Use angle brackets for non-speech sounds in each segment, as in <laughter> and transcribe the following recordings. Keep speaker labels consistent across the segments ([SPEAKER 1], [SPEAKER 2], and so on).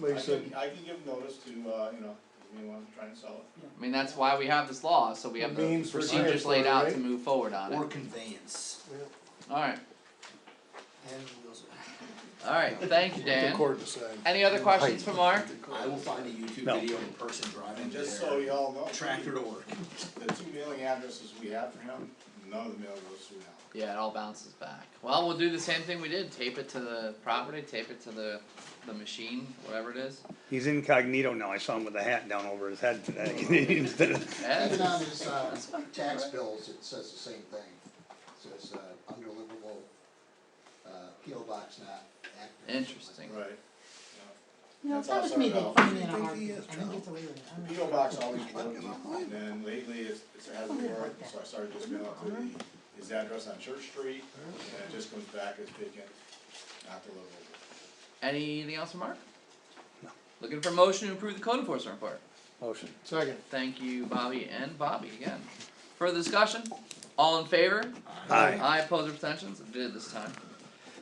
[SPEAKER 1] like I
[SPEAKER 2] I
[SPEAKER 1] said,
[SPEAKER 2] can, I can give notice to, uh, you know, if anyone trying to sell it.
[SPEAKER 3] I mean, that's why we have this law, so we have the
[SPEAKER 1] Means for
[SPEAKER 3] procedures
[SPEAKER 1] transfer,
[SPEAKER 3] laid out
[SPEAKER 1] right?
[SPEAKER 3] to move forward on
[SPEAKER 4] Or
[SPEAKER 3] it.
[SPEAKER 4] conveyance.
[SPEAKER 3] Alright,
[SPEAKER 4] And those-
[SPEAKER 3] alright, thank you,
[SPEAKER 1] the
[SPEAKER 3] Dan.
[SPEAKER 1] court decided.
[SPEAKER 3] Any other questions for Mark?
[SPEAKER 4] I will find a YouTube
[SPEAKER 5] No.
[SPEAKER 4] video of a person driving
[SPEAKER 2] And just so
[SPEAKER 4] their
[SPEAKER 2] y'all know,
[SPEAKER 4] tractor
[SPEAKER 2] the
[SPEAKER 4] to work.
[SPEAKER 2] two mailing addresses we have for him, none of the mail goes through now.
[SPEAKER 3] Yeah, it all bounces back. Well, we'll do the same thing we did, tape it to the property, tape it to the, the machine, whatever it is.
[SPEAKER 5] He's incognito now, I saw him with a hat down over his head today. <laughs> Instead of-
[SPEAKER 6] Even
[SPEAKER 3] Yeah,
[SPEAKER 6] on his, uh, tax bills, it says the same thing, it says, uh, undeliverable, uh, PO box not active.
[SPEAKER 3] Interesting.
[SPEAKER 2] Right.
[SPEAKER 7] You know,
[SPEAKER 2] That's
[SPEAKER 7] it's not
[SPEAKER 2] also
[SPEAKER 7] just me that
[SPEAKER 2] irrelevant.
[SPEAKER 7] find it hard, I
[SPEAKER 1] Think he is,
[SPEAKER 7] think it's a weird. I don't
[SPEAKER 2] The
[SPEAKER 7] know.
[SPEAKER 2] PO box always bugged me, and then lately it's, it's has me worried, so I started just mailing to the, his address on Church Street, and it just comes back as vacant, not deliverable.
[SPEAKER 3] Anything else for Mark? Looking for motion to approve the code enforcement report.
[SPEAKER 5] Motion.
[SPEAKER 1] Second,
[SPEAKER 3] Thank you, Bobby and Bobby again. Further discussion? All in favor?
[SPEAKER 5] Aye.
[SPEAKER 3] I oppose or abstentions, I did this time.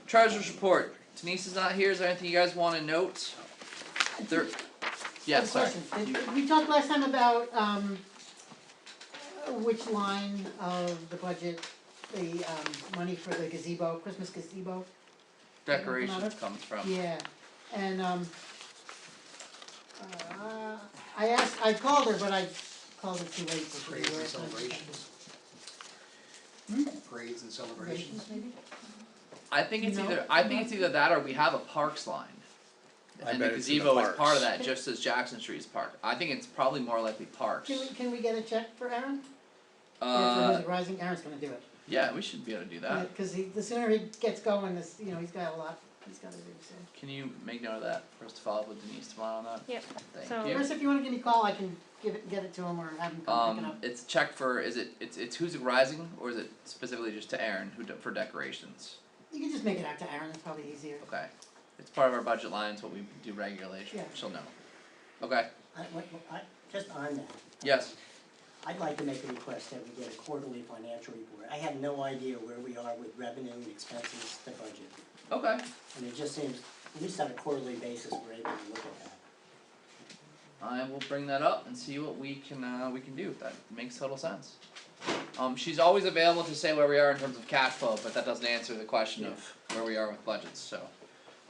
[SPEAKER 3] Treasurer's report, Denise is not here, is there anything you guys wanna note? There, yeah,
[SPEAKER 7] Good
[SPEAKER 3] sorry.
[SPEAKER 7] question.
[SPEAKER 3] You-
[SPEAKER 7] Did- We talked last time about, um, uh, which line of the budget, the, um, money for the gazebo, Christmas gazebo.
[SPEAKER 3] Decorations comes from,
[SPEAKER 7] Yeah, and, um, uh, I asked, I called her, but I called her too late. so she
[SPEAKER 4] Parades and
[SPEAKER 7] was-
[SPEAKER 4] celebrations. Parades and celebrations.
[SPEAKER 7] Celebrations, maybe?
[SPEAKER 3] I think it's
[SPEAKER 7] No.
[SPEAKER 3] either, I think it's either that or we have a parks line.
[SPEAKER 5] I
[SPEAKER 3] And the
[SPEAKER 5] bet it's in the
[SPEAKER 3] gazebo is part
[SPEAKER 5] parks.
[SPEAKER 3] of that, just as Jackson Street is park, I think it's probably more likely parks.
[SPEAKER 7] Can we, can we get a check for Aaron? Or for
[SPEAKER 3] Uh,
[SPEAKER 7] who's rising, Aaron's gonna do it.
[SPEAKER 3] yeah, we should be able to do
[SPEAKER 7] Yeah,
[SPEAKER 3] that,
[SPEAKER 7] Cause he, the sooner he gets going, this, you know, he's got a lot, he's gotta do, so.
[SPEAKER 3] can you make note of that, for us to follow up with Denise tomorrow on that?
[SPEAKER 8] Yep, so-
[SPEAKER 3] Thank you.
[SPEAKER 7] Chris, if you wanna give me a call, I can give it, get it to him or have him come pick it
[SPEAKER 3] Um,
[SPEAKER 7] up.
[SPEAKER 3] it's check for, is it, it's, it's who's rising, or is it specifically just to Aaron, who, de- for decorations?
[SPEAKER 7] You can just make it out to Aaron, it's probably easier.
[SPEAKER 3] Okay, it's part of our budget line, it's what we do regularly,
[SPEAKER 7] Yeah.
[SPEAKER 3] she'll know. Okay,
[SPEAKER 9] I, what- what- I, just on that,
[SPEAKER 3] yes,
[SPEAKER 9] I'd like to make a request that we get a quarterly financial report. I have no idea where we are with revenue and expenses, the budget.
[SPEAKER 3] okay,
[SPEAKER 9] And it just seems, at least on a quarterly basis, we're able to look at that.
[SPEAKER 3] I will bring that up and see what we can, uh, we can do, that makes total sense. Um, she's always available to say where we are in terms of cash flow, but that doesn't answer the question of where we are with budgets, so.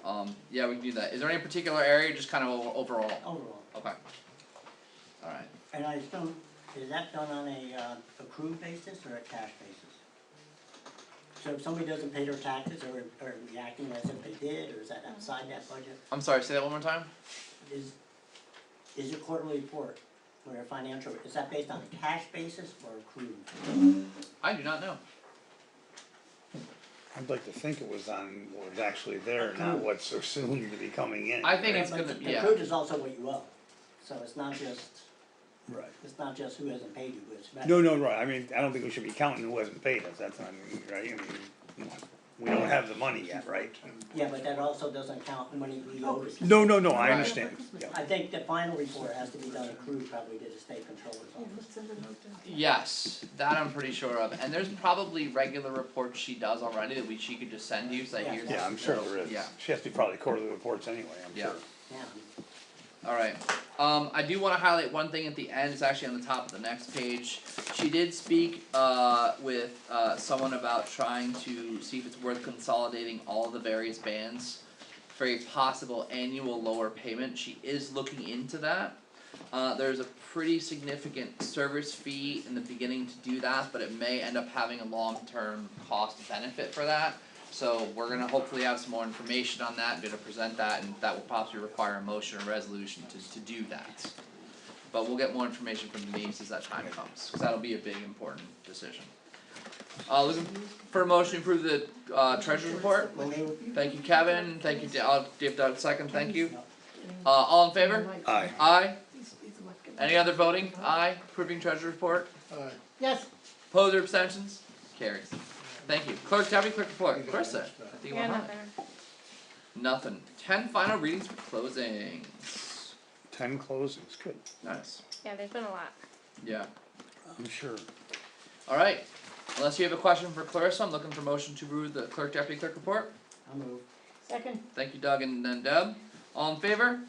[SPEAKER 3] Um, yeah, we can do that, is there any particular area, just kind of o- overall,
[SPEAKER 9] Overall,
[SPEAKER 3] okay. Alright,
[SPEAKER 9] and I assume, is that done on a uh, accrued basis or a cash basis? So if somebody doesn't pay their taxes, or, or reacting as if they did, or is that outside that budget?
[SPEAKER 3] I'm sorry, say that one more time?
[SPEAKER 9] Is, is your quarterly report, or your financial, is that based on a cash basis or accrued?
[SPEAKER 3] I do not know.
[SPEAKER 5] I'd like to think it was on what was actually there, not what's assumed to be coming in.
[SPEAKER 3] I think
[SPEAKER 5] right?
[SPEAKER 3] it's
[SPEAKER 9] But
[SPEAKER 3] gonna,
[SPEAKER 9] the
[SPEAKER 3] yeah,
[SPEAKER 9] code is also what you owe, so it's not just,
[SPEAKER 5] Right.
[SPEAKER 9] it's not just who hasn't paid you, it's. about-
[SPEAKER 5] No, no, right, I mean, I don't think we should be counting who hasn't paid us, that's not, right, I mean, we don't have the money yet, right?
[SPEAKER 9] Yeah, but that also doesn't count money we owe. to-
[SPEAKER 5] No, no, no, I
[SPEAKER 3] Right.
[SPEAKER 5] understand, yeah.
[SPEAKER 9] I think the final report has to be done accrued probably to the state controller's office.
[SPEAKER 3] yes, that I'm pretty sure of, and there's probably regular reports she does already that we, she could just send you, so
[SPEAKER 9] Yeah.
[SPEAKER 3] here's.
[SPEAKER 5] Yeah, I'm sure there is.
[SPEAKER 3] Yeah.
[SPEAKER 5] She has to be probably quarterly reports anyway, I'm
[SPEAKER 3] Yeah.
[SPEAKER 5] sure.
[SPEAKER 9] Yeah,
[SPEAKER 3] Alright, um, I do wanna highlight one thing at the end, it's actually on the top of the next page. She did speak, uh, with, uh, someone about trying to see if it's worth consolidating all the various bands for a possible annual lower payment, she is looking into that. Uh, there's a pretty significant service fee in the beginning to do that, but it may end up having a long-term cost benefit for that. So we're gonna hopefully have some more information on that, and gonna present that, and that will possibly require a motion or resolution to to do that. But we'll get more information from Denise as that time comes, cause that'll be a big important decision. Uh, looking for a motion to approve the uh treasurer's report?
[SPEAKER 9] well, they,
[SPEAKER 3] Thank you, Kevin, thank you, Da- I'll give Doug a second, thank you. Uh, all in favor?
[SPEAKER 5] Aye.
[SPEAKER 3] Aye, any other voting? Aye, approving treasurer's report,
[SPEAKER 1] alright.
[SPEAKER 7] Yes,
[SPEAKER 3] opposed or abstentions? Carries. Thank you, clerk, tell me quick report, Clarissa, I think you
[SPEAKER 8] Yeah,
[SPEAKER 3] want
[SPEAKER 8] not
[SPEAKER 3] mine.
[SPEAKER 8] there.
[SPEAKER 3] Nothing, ten final readings for closings,
[SPEAKER 5] Ten closings, good,
[SPEAKER 3] nice,
[SPEAKER 8] Yeah, there's been a lot.
[SPEAKER 3] yeah,
[SPEAKER 5] I'm sure.
[SPEAKER 3] alright. Unless you have a question for Clarissa, I'm looking for motion to approve the clerk deputy clerk report,
[SPEAKER 9] I'll move.
[SPEAKER 7] second.
[SPEAKER 3] thank you Doug and then Deb, all in favor?